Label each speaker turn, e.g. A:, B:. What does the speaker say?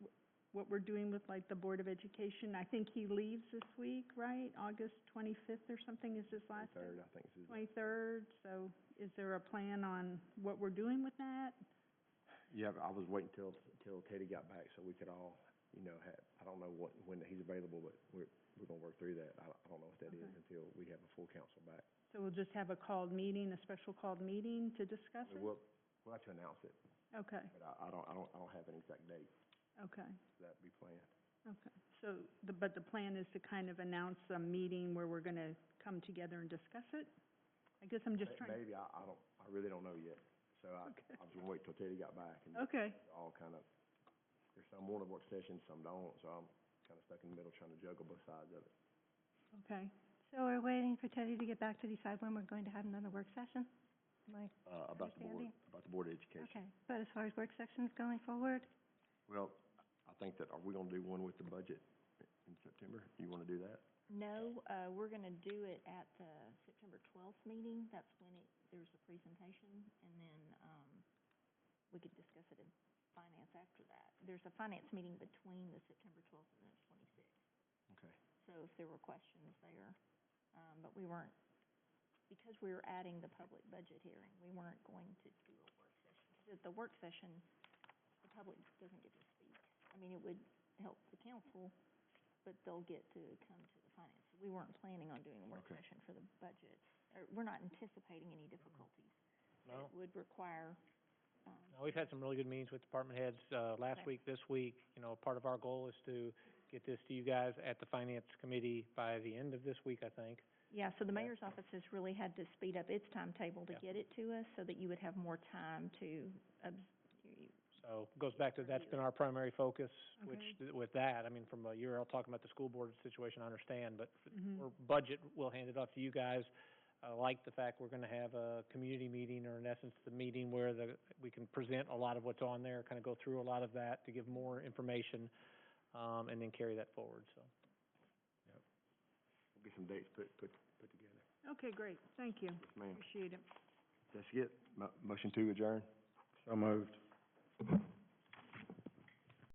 A: what we're doing with like the Board of Education. I think he leaves this week, right? August twenty-fifth or something is his last day?
B: Third, I think this is.
A: Twenty-third, so is there a plan on what we're doing with that?
B: Yeah, I was waiting till, till Teddy got back so we could all, you know, have, I don't know what, when he's available, but we're, we're gonna work through that. I, I don't know if that is
A: Okay.
B: until we have a full council back.
A: So we'll just have a called meeting, a special called meeting to discuss it?
B: We'll, we'll have to announce it,
A: Okay,
B: but I, I don't, I don't, I don't have an exact date
A: okay,
B: that we plan.
A: okay. So, the, but the plan is to kind of announce a meeting where we're gonna come together and discuss it? I guess I'm just
B: May-
A: trying,
B: Maybe, I, I don't, I really don't know yet. So I,
A: Okay.
B: I was gonna wait till Teddy got back and
A: okay,
B: all kind of, there's some want to work sessions, some don't, so I'm kind of stuck in the middle trying to juggle both sides of it.
A: okay.
C: So we're waiting for Teddy to get back to decide when we're going to have another work session? Like,
B: Uh, about the board,
C: Understanding.
B: about the board of education.
C: okay, but as far as work sessions going forward,
B: Well, I think that, are we gonna do one with the budget in September? You wanna do that?
D: No, uh, we're gonna do it at the September twelfth meeting, that's when it, there's a presentation, and then, um, we could discuss it in finance after that. There's a finance meeting between the September twelfth and the twenty-sixth,
B: Okay.
D: so if there were questions there, um, but we weren't, because we were adding the public budget hearing, we weren't going to do a work session. 'Cause at the work session, the public doesn't get to speak. I mean, it would help the council, but they'll get to come to the finance. We weren't planning on doing a work
B: Okay.
D: session for the budget, or we're not anticipating any difficulties.
E: No.
D: It would require, um,
E: Now, Uh, we've had some really good meetings with department heads, uh, last
D: Okay.
E: week, this week. You know, part of our goal is to get this to you guys at the finance committee by the end of this week, I think.
D: yeah, so the
E: Yeah.
D: mayor's office has really had to speed up its timetable to
E: Yeah.
D: get it to us so that you would have more time to, obs-
E: So, goes back to, that's been our primary focus, which, th- with that, I mean, from, uh, you're all talking about the school board situation, I understand, but f-
A: Mhm.
E: for budget, we'll hand it off to you guys. I like the fact we're gonna have a community meeting, or in essence, the meeting where the, we can present a lot of what's on there, kinda go through a lot of that to give more information, um, and then carry that forward, so.
B: We'll get some dates put, put, put together.
A: Okay, great, thank you,
B: Yes, ma'am.
A: appreciate it.
B: That's it. Mo- motion to adjourn? So moved.